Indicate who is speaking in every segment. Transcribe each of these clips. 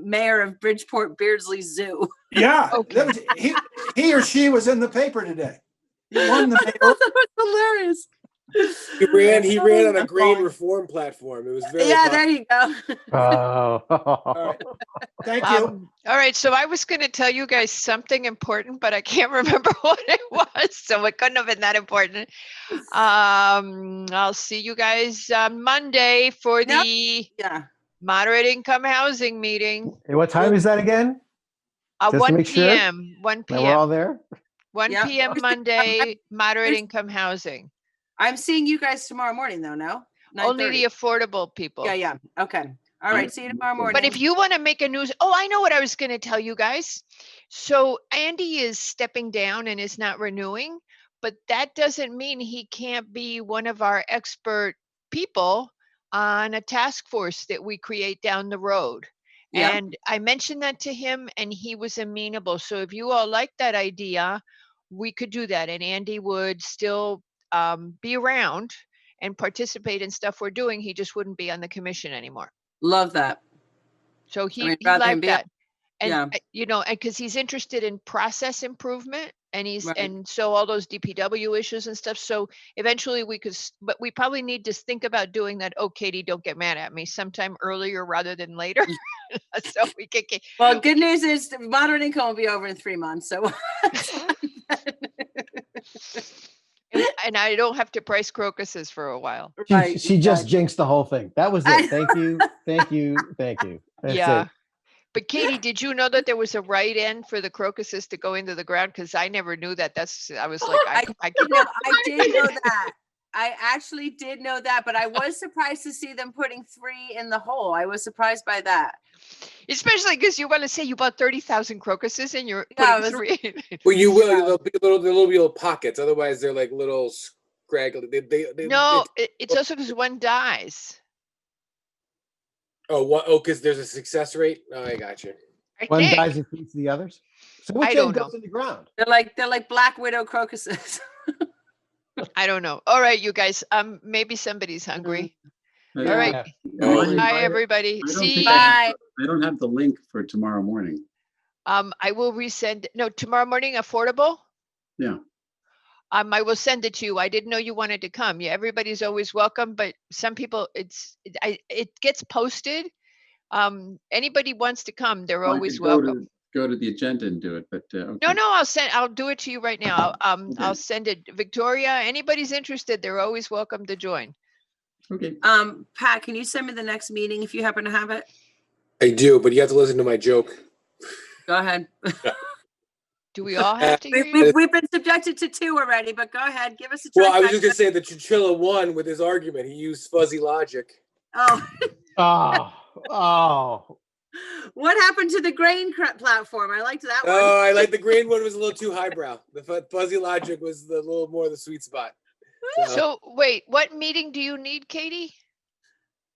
Speaker 1: mayor of Bridgeport Beardsley Zoo.
Speaker 2: Yeah,
Speaker 3: Okay.
Speaker 2: that was, he, he or she was in the paper today. He won the
Speaker 1: that was hilarious.
Speaker 4: He ran, he ran on a green
Speaker 2: fine.
Speaker 4: reform platform. It was very.
Speaker 1: Yeah,
Speaker 4: popular.
Speaker 1: there you go.
Speaker 5: Oh.
Speaker 2: Thank you.
Speaker 3: Um, All right, so I was going to tell you guys something important, but I can't remember what it was, so it couldn't have been that important. Um, I'll see you guys on Monday for
Speaker 1: Yep.
Speaker 3: the
Speaker 1: Yeah.
Speaker 3: moderate income housing meeting.
Speaker 5: Hey, what time is that again?
Speaker 3: Uh,
Speaker 5: Just to
Speaker 3: one
Speaker 5: make sure
Speaker 3: PM, one
Speaker 5: That we're all
Speaker 3: PM,
Speaker 5: there?
Speaker 3: one
Speaker 1: Yep.
Speaker 3: PM
Speaker 1: Where's the-
Speaker 3: Monday, moderate
Speaker 1: where's-
Speaker 3: income housing.
Speaker 1: I'm seeing you guys tomorrow morning though, no?
Speaker 3: Only the
Speaker 1: 9:30.
Speaker 3: affordable people.
Speaker 1: Yeah, yeah. Okay. All right. See you tomorrow morning.
Speaker 3: But if you want to make a news, oh, I know what I was going to tell you guys. So Andy is stepping down and is not renewing, but that doesn't mean he can't be one of our expert people on a task force that we create down the road.
Speaker 1: Yeah.
Speaker 3: And I mentioned that to him and he was amenable. So if you all like that idea, we could do that and Andy would still um, be around and participate in stuff we're doing. He just wouldn't be on the commission anymore.
Speaker 1: Love that.
Speaker 3: So he,
Speaker 1: mean,
Speaker 3: he
Speaker 1: rather than
Speaker 3: liked
Speaker 1: be up-
Speaker 3: that. And,
Speaker 1: yeah.
Speaker 3: uh, you know, and because he's interested in process improvement and he's,
Speaker 1: Right.
Speaker 3: and so all those DPW issues and stuff. So eventually we could, s- but we probably need to think about doing that. Oh, Katie, don't get mad at me sometime earlier rather than later.
Speaker 1: Mm.
Speaker 3: So we can get,
Speaker 1: Well, good news is the moderate income will be over in three months. So
Speaker 3: and- and I don't have to price crocuses for a while.
Speaker 5: She,
Speaker 1: Right,
Speaker 5: she just
Speaker 1: exactly.
Speaker 5: jinxed the whole thing. That was
Speaker 1: I-
Speaker 5: it. Thank you. Thank you. Thank you. That's
Speaker 3: Yeah.
Speaker 5: it.
Speaker 3: But Katie, did you know that there was a right end for the crocuses to go into the ground? Because I never knew that. That's, I was like, I, c- I
Speaker 1: You
Speaker 3: could
Speaker 1: know, I did know that. I actually did know that, but I was surprised to see them putting three in the hole. I was surprised by that.
Speaker 3: Especially because you want to say you bought thirty thousand crocuses and you're
Speaker 1: Yeah,
Speaker 3: putting three.
Speaker 4: Well, you will. They'll be little, they'll be little pockets. Otherwise, they're like little scraggly. They, they, they,
Speaker 3: no,
Speaker 4: it's-
Speaker 3: it, it's also because one dies.
Speaker 4: Oh, what? Oh, because there's a success rate. Oh, I got you.
Speaker 3: I
Speaker 5: One
Speaker 3: think.
Speaker 5: dies and feeds the others. So which
Speaker 3: don't
Speaker 5: end
Speaker 3: know.
Speaker 5: goes in the ground?
Speaker 1: They're like they're like black widow crocuses.
Speaker 3: I don't know. All right, you guys. Um, maybe somebody's hungry.
Speaker 6: All
Speaker 3: All right.
Speaker 5: Yeah.
Speaker 6: Oh,
Speaker 3: Bye,
Speaker 6: I-
Speaker 3: everybody.
Speaker 6: I don't
Speaker 3: See.
Speaker 6: think I-
Speaker 1: Bye.
Speaker 6: I don't have the link for tomorrow morning.
Speaker 3: Um, I will resend. No, tomorrow morning, affordable.
Speaker 6: Yeah.
Speaker 3: Um, I will send it to you. I didn't know you wanted to come. Yeah, everybody's always welcome, but some people, it's, it- I, it gets posted. Um, anybody wants to come, they're
Speaker 6: Well, I
Speaker 3: always
Speaker 6: could go to-
Speaker 3: welcome.
Speaker 6: Go to the agenda and do it, but, uh, okay.
Speaker 3: No, no, I'll send, I'll do it to you right now. Um, I'll
Speaker 6: Okay.
Speaker 3: send it, Victoria, anybody's interested, they're always welcome to join.
Speaker 6: Okay,
Speaker 1: Um, Pat, can you send me the next meeting if you happen to have it?
Speaker 4: I do, but you have to listen to my joke.
Speaker 1: Go ahead.
Speaker 3: Do we all have to hear
Speaker 1: We've,
Speaker 3: you?
Speaker 1: we've, we've been subjected to two already, but go ahead. Give us a
Speaker 4: Well, I was just
Speaker 1: trifecta.
Speaker 4: gonna say the chinchilla won with his argument. He used fuzzy logic.
Speaker 1: Oh,
Speaker 5: Oh, oh.
Speaker 1: what happened to the grain cr- platform? I liked that one.
Speaker 4: Oh, I like the green one was a little too highbrow. The fu- fuzzy logic was the little more the sweet spot.
Speaker 3: So, wait, what meeting do you need, Katie?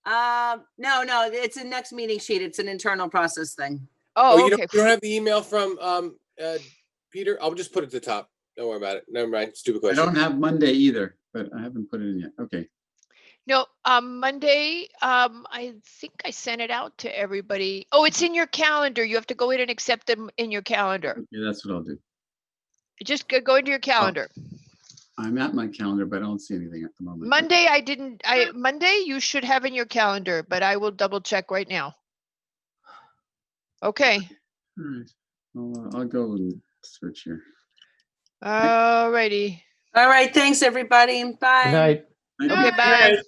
Speaker 1: Um, no, no, it's a next meeting sheet. It's an internal process thing.
Speaker 4: oh,
Speaker 3: Oh,
Speaker 4: you,
Speaker 3: okay.
Speaker 4: don't, you don't have the email from um uh, Peter. I'll just put it to the top. Don't worry about it. Never mind. Stupid
Speaker 6: I
Speaker 4: question.
Speaker 6: don't have Monday either, but I haven't put it in yet. Okay,
Speaker 3: No, um, Monday, um, I think I sent it out to everybody. Oh, it's in your calendar. You have to go in and accept them in your calendar.
Speaker 6: okay, that's what I'll do.
Speaker 3: Just go- go into your calendar.
Speaker 6: I'm at my calendar, but I don't see anything at the moment.
Speaker 3: Monday, I didn't, I, Monday, you should have in your calendar, but I will double check right now. Okay.
Speaker 6: All right, I'll, uh, I'll go and search here.
Speaker 3: Alrighty.
Speaker 1: All right. Thanks, everybody. Bye.
Speaker 5: Good night.
Speaker 6: I-
Speaker 3: Okay, bye.